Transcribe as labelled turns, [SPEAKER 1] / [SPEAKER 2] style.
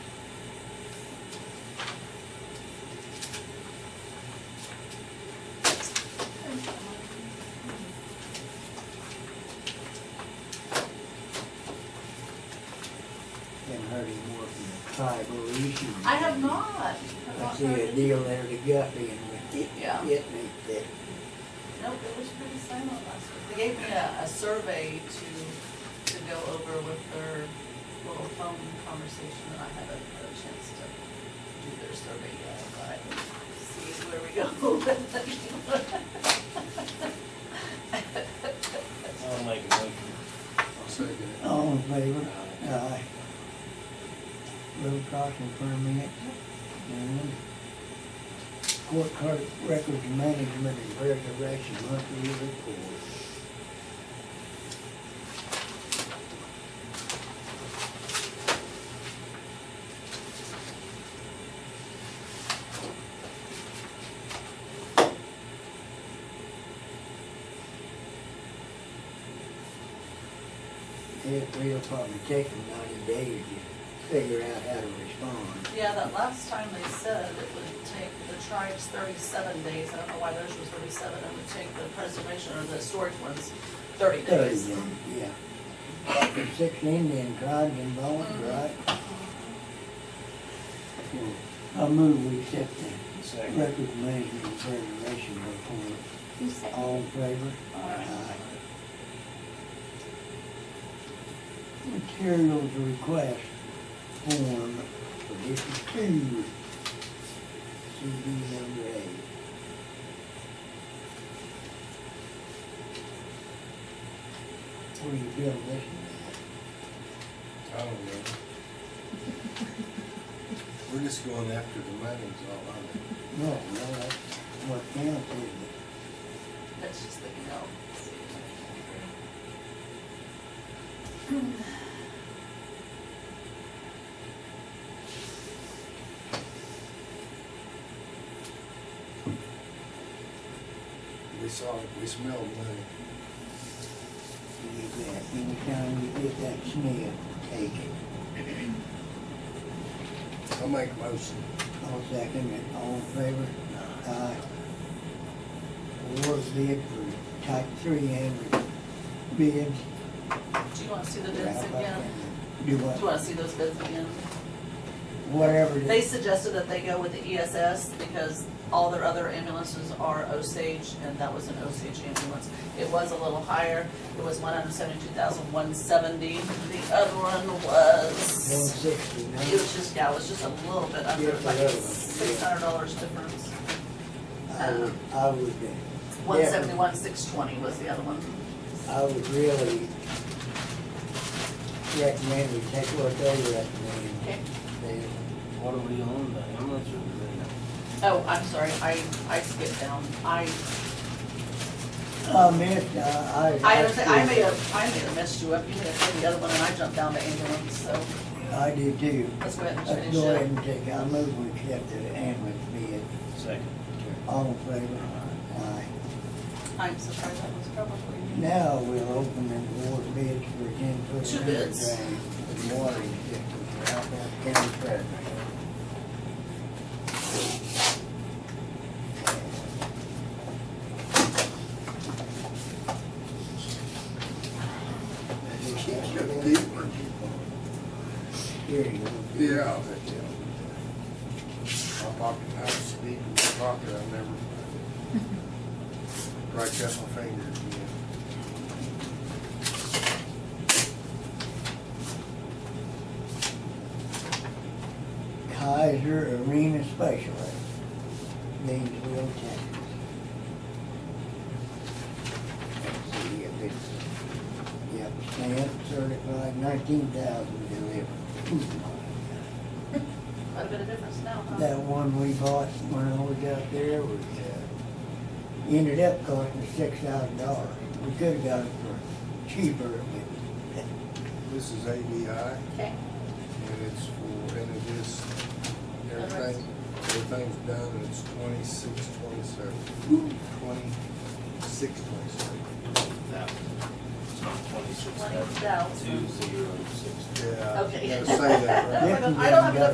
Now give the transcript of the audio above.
[SPEAKER 1] side little issue.
[SPEAKER 2] I have not.
[SPEAKER 1] I see a deal there that got me and it
[SPEAKER 2] Yeah.
[SPEAKER 1] hit me that
[SPEAKER 2] Nope, it was pretty silent last week. They gave me a, a survey to, to go over with their little phone conversation, and I haven't had a chance to do their survey yet, but see where we go with it.
[SPEAKER 3] I'll make a motion.
[SPEAKER 4] I'll second it.
[SPEAKER 1] all in favor. Aye. Road crossing permit. Mm-hmm. And court card records management and resurrection monthly report. It will probably take them ninety days to figure out how to respond.
[SPEAKER 2] Yeah, that last time they said it would take the tribes thirty-seven days, I don't know why theirs was thirty-seven, it would take the preservation or the storage ones thirty
[SPEAKER 1] Thirty
[SPEAKER 2] days.
[SPEAKER 1] then, yeah. Six Indian tribes involved, right? I move we accept the
[SPEAKER 3] Second.
[SPEAKER 1] record management and preservation report.
[SPEAKER 5] Who said?
[SPEAKER 1] All in favor?
[SPEAKER 2] Aye.
[SPEAKER 1] Materials request form for District Two. CD number eight. Where you build this one
[SPEAKER 4] I don't know. We're just going after the money's all on it.
[SPEAKER 1] at? No, no, that's what counts, isn't it?
[SPEAKER 2] That's just the, you
[SPEAKER 4] We saw, it. we smelled money.
[SPEAKER 1] You get that, anytime you get that smell, take it.
[SPEAKER 4] I'll make a motion.
[SPEAKER 1] I'll second it, all in favor? Aye. Award bid for type three and bids.
[SPEAKER 2] do you wanna see the bids again?
[SPEAKER 1] Do
[SPEAKER 2] Do you
[SPEAKER 1] what?
[SPEAKER 2] wanna see those bids again?
[SPEAKER 1] Whatever. it
[SPEAKER 2] They
[SPEAKER 1] is.
[SPEAKER 2] suggested that they go with the ESS because all their other ambulances are Osage, and that was an Osage ambulance. It was a little higher, it was one hundred seventy-two thousand one seventy, the other one
[SPEAKER 1] One
[SPEAKER 2] was,
[SPEAKER 1] sixty,
[SPEAKER 2] it was just, yeah, it was just a little bit under,
[SPEAKER 1] Yeah, the
[SPEAKER 2] like
[SPEAKER 1] other one, yeah.
[SPEAKER 2] six hundred dollars difference.
[SPEAKER 1] I would, I would, uh,
[SPEAKER 2] One seventy-one, six twenty was the other one.
[SPEAKER 1] I would really recommend we take what they recommend.
[SPEAKER 2] Okay.
[SPEAKER 1] They-
[SPEAKER 3] What are we on by? How much are
[SPEAKER 2] Oh, I'm sorry, I, I skipped down, I,
[SPEAKER 1] I missed, Uh, I, I.
[SPEAKER 2] I, I made a, I made a mess you up, you made a, the other one, and I jumped down to ambulance, so
[SPEAKER 1] I do too.
[SPEAKER 2] let's go ahead and
[SPEAKER 1] Let's
[SPEAKER 2] finish
[SPEAKER 1] Uh, go
[SPEAKER 2] it.
[SPEAKER 1] ahead and take, I move we accept the ambulance bid.
[SPEAKER 3] we? Second.
[SPEAKER 1] All in favor? Aye.
[SPEAKER 2] I'm surprised that was probably.
[SPEAKER 1] Now we'll open the award bids for ten foot.
[SPEAKER 2] Two bids.
[SPEAKER 1] And watering system for outbound county fairgrounds. Here you go.
[SPEAKER 4] Yeah. I'll bet you. My pocket, I was speaking in my pocket, I never. Right up my finger again.
[SPEAKER 1] Kaiser Arena Specialist, Gainesville, Texas. Let's see if it's, yep, stamp certified nineteen thousand delivered.
[SPEAKER 2] Quite a bit of difference now, huh?
[SPEAKER 1] That one we bought when I was out there was, uh, ended up costing six thousand dollars. We could've got it for cheaper, but
[SPEAKER 4] This is ADI.
[SPEAKER 2] Okay,
[SPEAKER 4] And it's for, and it is, everything, everything's done, and it's twenty-six, twenty-seven, twenty-six, twenty-seven.
[SPEAKER 3] That one. It's not twenty-six,
[SPEAKER 2] Twenty
[SPEAKER 3] that's
[SPEAKER 2] thousand.
[SPEAKER 3] two zero six.
[SPEAKER 4] Yeah.
[SPEAKER 2] Okay.
[SPEAKER 4] Gotta say that, right?
[SPEAKER 2] I don't have enough